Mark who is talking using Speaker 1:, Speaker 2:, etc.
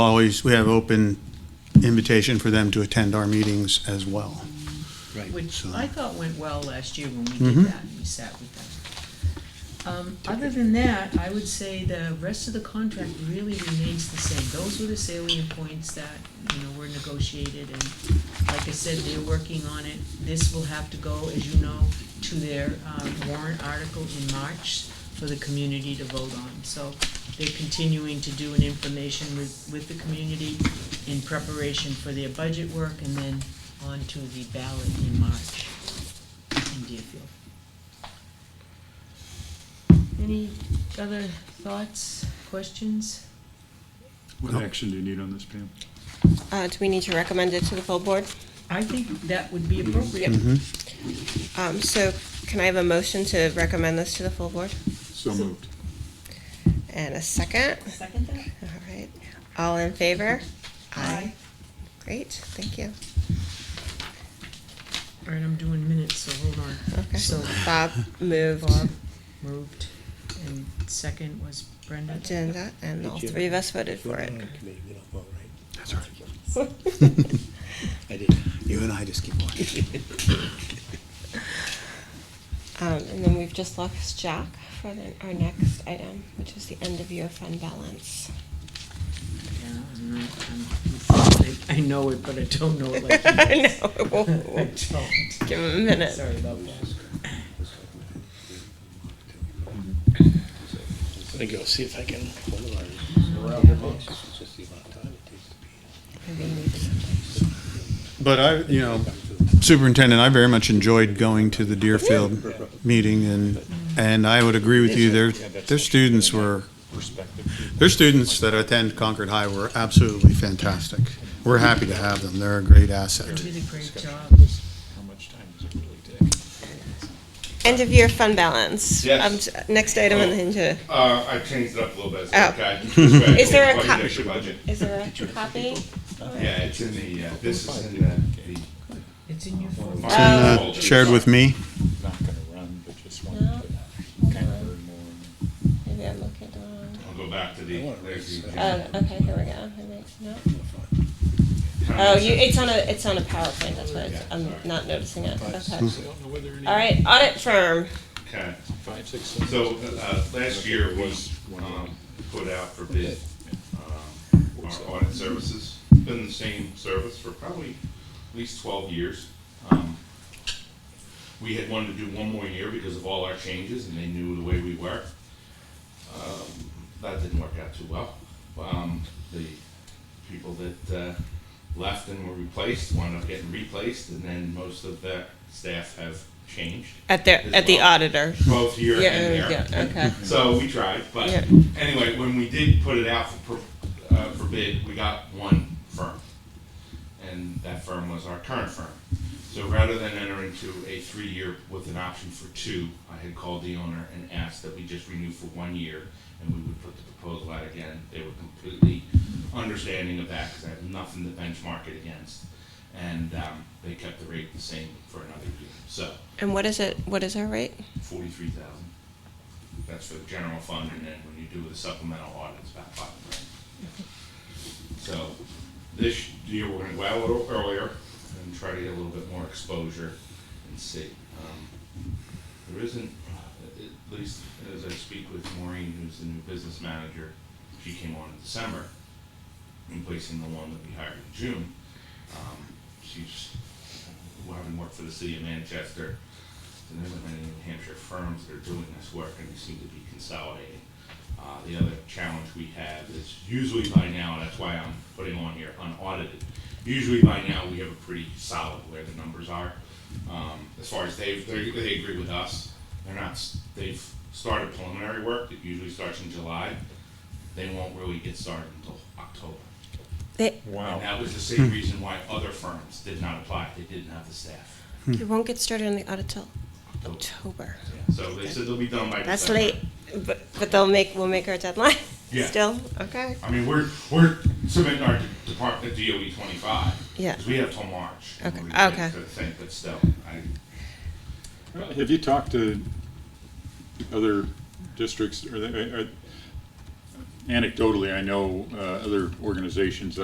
Speaker 1: Always, we have open invitation for them to attend our meetings as well.
Speaker 2: Which
Speaker 1: So-
Speaker 2: I thought went well last year when we did
Speaker 1: Mhm.
Speaker 2: that, and we sat with them. Um, other than that, I would say the rest of the contract really remains the same. Those were the salient points that, you know, were negotiated, and like I said, they're working on it. This will have to go, as you know, to their, um, warrant article in March for the community to vote on. So they're continuing to do an information with, with the community in preparation for their budget work, and then onto the ballot in March in Deerfield. Any other thoughts, questions?
Speaker 3: What action do you need on this, Pam?
Speaker 4: Uh, Do we need to recommend it to the full board?
Speaker 2: I think that would be appropriate.
Speaker 4: Mm. Um, So can I have a motion to recommend this to the full board?
Speaker 3: So moved.
Speaker 4: And a second?
Speaker 2: Second that?
Speaker 4: All right. All in favor?
Speaker 2: Aye.
Speaker 4: Great, thank you.
Speaker 2: All right, I'm doing minutes, so hold on.
Speaker 4: Okay.
Speaker 2: So
Speaker 4: Bob moved
Speaker 2: Bob moved, and second was Brenda.
Speaker 4: agenda, and all three of us voted for it.
Speaker 5: Committee, we don't vote, right?
Speaker 1: That's all right.
Speaker 5: I did.
Speaker 1: You and I just keep watching.
Speaker 4: Um, And then we've just lost Jack for the- our next item, which is the end of year fund balance.
Speaker 2: Yeah, that was another time. I know it, but I don't know it like you.
Speaker 4: No, it won't-
Speaker 2: I
Speaker 4: won't.
Speaker 2: don't.
Speaker 4: give him a minute.
Speaker 2: Sorry about that.
Speaker 5: Let me go see if I can. It's just the amount of time it takes to be
Speaker 4: Maybe he needs-
Speaker 1: But I, you know, Superintendent, I very much enjoyed going to the Deerfield meeting and, and I would agree with you, their, their students were, their students that attend Concord High were absolutely fantastic. We're happy to have them. They're a great
Speaker 2: You
Speaker 1: asset.
Speaker 2: did a great job.
Speaker 3: How much time does it really take?
Speaker 4: End of year fund balance.
Speaker 6: Yes.
Speaker 4: Um, t- Next item on the
Speaker 2: Oh.
Speaker 4: agenda.
Speaker 6: Uh, I changed it up a little bit. So
Speaker 4: Oh.
Speaker 6: okay.
Speaker 4: Is there a
Speaker 6: Budget, budget.
Speaker 4: Is there a copy?
Speaker 6: Yeah, it's in the. Uh, this is in the.
Speaker 2: It's in your folder.
Speaker 6: the
Speaker 1: And, uh, Shared with me,
Speaker 3: Not gonna run, but just wanted
Speaker 4: No.
Speaker 3: to kind of learn more.
Speaker 4: Maybe I'm looking at the wrong.
Speaker 6: I'll go back to the. there's the-
Speaker 4: Oh, okay, here we go. I might- no. Oh, you, it's on a, it's on a PowerPoint, that's why it's- I'm not noticing it. Okay.
Speaker 3: I don't know whether any.
Speaker 4: All right, audit firm.
Speaker 6: Okay.
Speaker 3: Five, six, seven.
Speaker 6: So uh, last year was um, put out for bid um, our audit services. Been the same service for probably at least 12 years. Um, we had wanted to do one more year because of all our changes, and they knew the way we were. Um, that didn't work out too well. Um, the people that uh, left and were replaced wound up getting replaced, and then most of the staff have changed.
Speaker 4: At their,
Speaker 6: as
Speaker 4: at the
Speaker 6: well
Speaker 4: auditor.
Speaker 6: both here and
Speaker 4: Yeah,
Speaker 6: there.
Speaker 4: yeah, okay.
Speaker 6: So we tried, but
Speaker 4: Yeah.
Speaker 6: anyway, when we did put it out for, pro- uh, for bid, we got one firm. And that firm was our current firm. So rather than enter into a three-year with an option for two, I had called the owner and asked that we just renew for one year and we would put the proposal out again. They were completely understanding of that because I have nothing to benchmark it against. And, um, they kept the rate the same for another year. So,
Speaker 4: And what is it, what is our rate?
Speaker 6: forty-three thousand. That's for the general fund, and then when you do the supplemental audit, it's about five grand. So, this year, we're gonna go out a little earlier and try to get a little bit more exposure and see. Um, There isn't, uh, at least as I speak with Maureen, who's the new business manager, she came on in December, replacing the one that we hired in June. Um, She's, uh, having worked for the city of Manchester, and there's not many New Hampshire firms that are doing this work, and they seem to be consolidating. Uh, the other challenge we have is usually by now, that's why I'm putting on here unaudited. Usually by now, we have a pretty solid where the numbers are. Um, as far as they've, they, they agree with us, they're not, s- they've started preliminary work that usually starts in July. They won't really get started until October.
Speaker 4: They,
Speaker 6: And that was the same reason why other firms did not apply, they didn't have the staff.
Speaker 4: you won't get started on the audit till
Speaker 6: October.
Speaker 4: October.
Speaker 6: Yeah, So they said they'll be done by
Speaker 4: That's
Speaker 6: December.
Speaker 4: late, but, but they'll make, we'll make our deadline
Speaker 6: Yeah.
Speaker 4: still, okay?
Speaker 6: I mean, we're, we're submitting our department, DOE E twenty-five.
Speaker 4: Yeah.
Speaker 6: Because we have till March. in
Speaker 4: Okay,
Speaker 6: order to get
Speaker 4: okay.
Speaker 6: to the thing, but still, I,
Speaker 3: Have you uh, talked to other districts, or, they- or, anecdotally, I know uh, other organizations